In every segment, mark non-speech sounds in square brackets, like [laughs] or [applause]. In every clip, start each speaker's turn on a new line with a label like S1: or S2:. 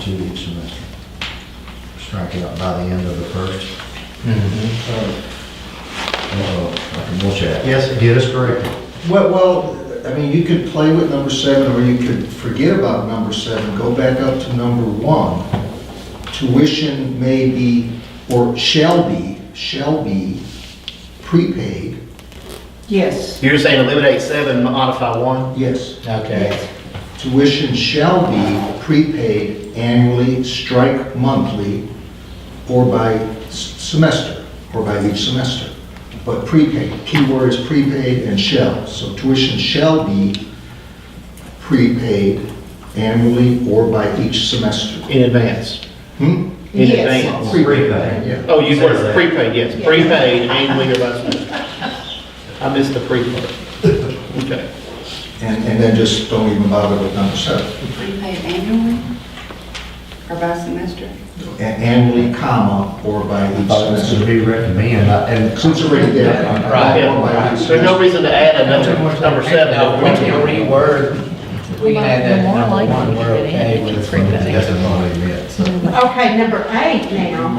S1: student semester. Strike it out by the end of the first.
S2: Mhm.
S1: Uh-oh, I can watch that.
S2: Yes.
S1: Get us corrected.
S3: Well, well, I mean, you could play with number seven, or you could forget about number seven, go back up to number one. Tuition may be, or shall be, shall be prepaid,
S4: Yes.
S2: You're saying eliminate seven, modify one?
S3: yes.
S2: Okay.
S3: Tuition shall be prepaid annually, strike monthly, or by s- semester, or by each semester. But prepaid, keyword is prepaid and shall, so tuition shall be prepaid annually or by each semester.
S2: In advance.
S3: Hmm?
S2: In
S4: Yes.
S2: advance.
S1: Prepaid.
S3: Yeah.
S2: Oh, you were
S1: Says that.
S2: prepaid, yes, prepaid annually or by semester. I missed the prepaid. Okay.
S3: And, and then just don't even bother with number seven.
S5: Prepaid annually or by semester?
S3: A- Annually, comma, or by each
S1: Uh, This would
S3: semester.
S1: be recommended, I- and.
S3: Since it's already there.
S1: Right.
S3: Or by
S2: Yeah.
S3: each
S2: There's no
S3: semester.
S2: reason to add another number seven.
S6: Now, we can reword, we can add that
S7: More
S6: number
S7: likely
S6: one, we're
S7: that it
S6: okay
S7: had to be
S6: with.
S7: prepaid.
S1: Doesn't want to admit, so.
S4: Okay, number eight now.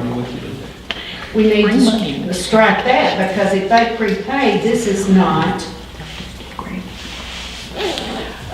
S4: We need
S7: Free money.
S4: to s- strike that because if they prepaid, this is not.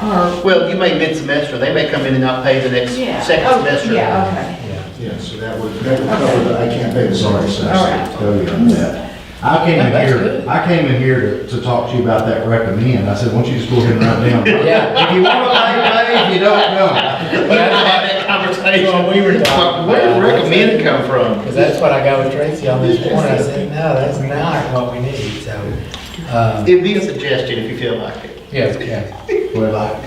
S4: Or,
S2: Well, you may mid-semester, they may come in and not pay the next,
S5: Yeah.
S2: second
S4: oh,
S2: semester.
S4: yeah, okay.
S3: Yeah, so that would, that would cover the, I can't pay the sorry
S4: All
S3: semester.
S4: right.
S1: Tell you on that. I came in
S6: That's
S1: here,
S6: good.
S1: I came in here to, to talk to you about that recommend. I said, why don't you just go ahead and write down.
S6: [laughs] Yeah.
S1: If you want to pay, pay, if you don't, don't.
S2: We have to have that conversation.
S6: Well, we were talking
S2: Where did
S6: about-
S2: recommend come from?
S6: Because that's what I got with Tracy on this morning, I said, no, that's not what we need, so. uh,
S2: It'd be a suggestion if you feel like it.
S6: Yes, yeah.
S1: Well, I,
S2: All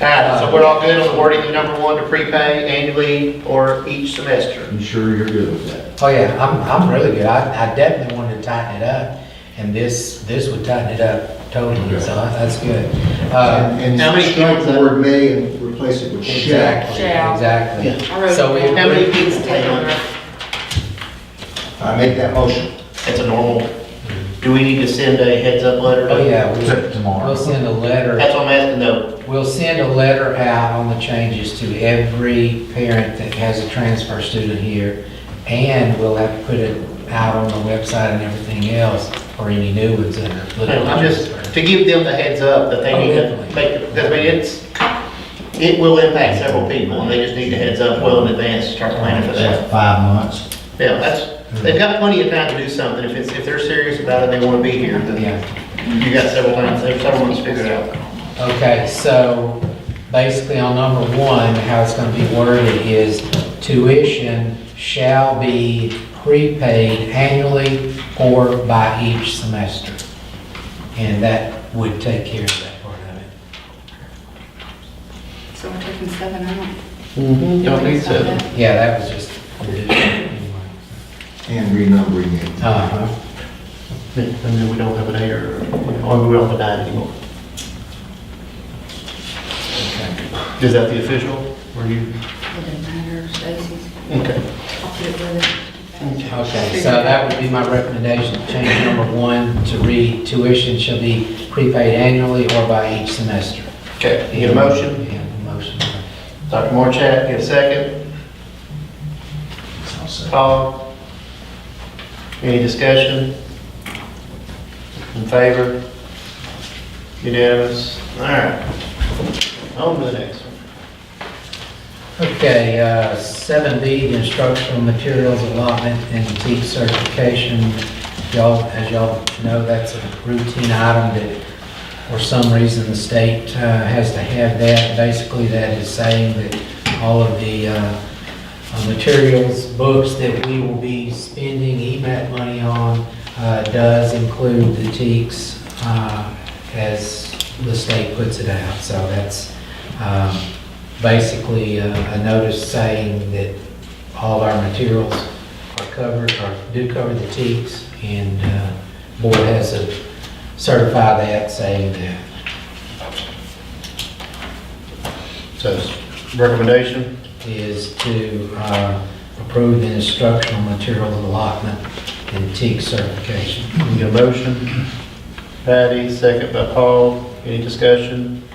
S2: right, so we're all good on wording the number one to prepay annually or each semester?
S1: I'm sure you're good with that.
S6: Oh, yeah, I'm, I'm really good. I, I definitely wanted to tighten it up, and this, this would tighten it up totally, so that's good. Uh,
S3: And
S2: How
S3: and
S2: many
S3: strike
S2: people-
S3: the word may and replace it with shall.
S6: Exactly,
S5: Shall. I
S6: exactly.
S5: wrote
S6: So
S5: down.
S2: How many
S6: we,
S2: kids take on that?
S3: I make that motion.
S2: That's a normal. Do we need to send a heads up letter?
S6: oh, yeah, we'll-
S1: Except tomorrow.
S6: we'll send a letter.
S2: That's what I'm asking though.
S6: We'll send a letter out on the changes to every parent that has a transfer student here, and we'll have to put it out on the website and everything else for any new ones that are. looking
S2: I'm just, Oh,
S6: transfer.
S2: to give them the heads up that they need to make, because I mean, it's, it will impact several people and they just need the heads up well in advance, to start planning for that.
S1: It's like Five months.
S2: Yeah, that's, they've got plenty of time to do something. If it's, if they're serious about it, they want to be here, then
S6: Yeah,
S2: you got several months, several months figured out.
S6: okay, so basically on number one, how it's gonna be worded is tuition shall be prepaid annually or by each semester. And that would take care of that part of it.
S5: So we're taking seven out. Mm-hmm.
S2: Don't need to.
S6: Yeah, that was just. anyway.
S3: And renumbering it.
S6: Uh-huh.
S2: And then we don't have an A or, or we don't have a nine anymore. Is that the official? Were you?
S5: Doesn't matter, Stacy's,
S2: Okay.
S5: I'll put it with it.
S6: Okay, so that would be my recommendation, change number one to read tuition shall be prepaid annually or by each semester.
S2: Okay, you get a motion?
S6: Yeah, motion.
S2: Dr. Morchat, get a second.
S1: I'll say.
S2: Paul? Any discussion? In favor? Unanimous? All right. On to the next one.
S6: Okay, uh, seven B, the instructional materials allotment and teach certification. Y'all, as y'all know, that's a routine item that, for some reason, the state uh, has to have that. Basically, that is saying that all of the uh, uh, materials, books that we will be spending E EMAT money on uh, does include the teaks uh, as the state puts it out. So that's um, basically uh, a notice saying that all of our materials are covered, or do cover the teaks, and uh, board has to certify that, saying that.
S2: So, recommendation?
S6: is to uh, approve the instructional material allotment and TEAC certification.
S2: You get a motion? Patty, second by Paul. Any discussion?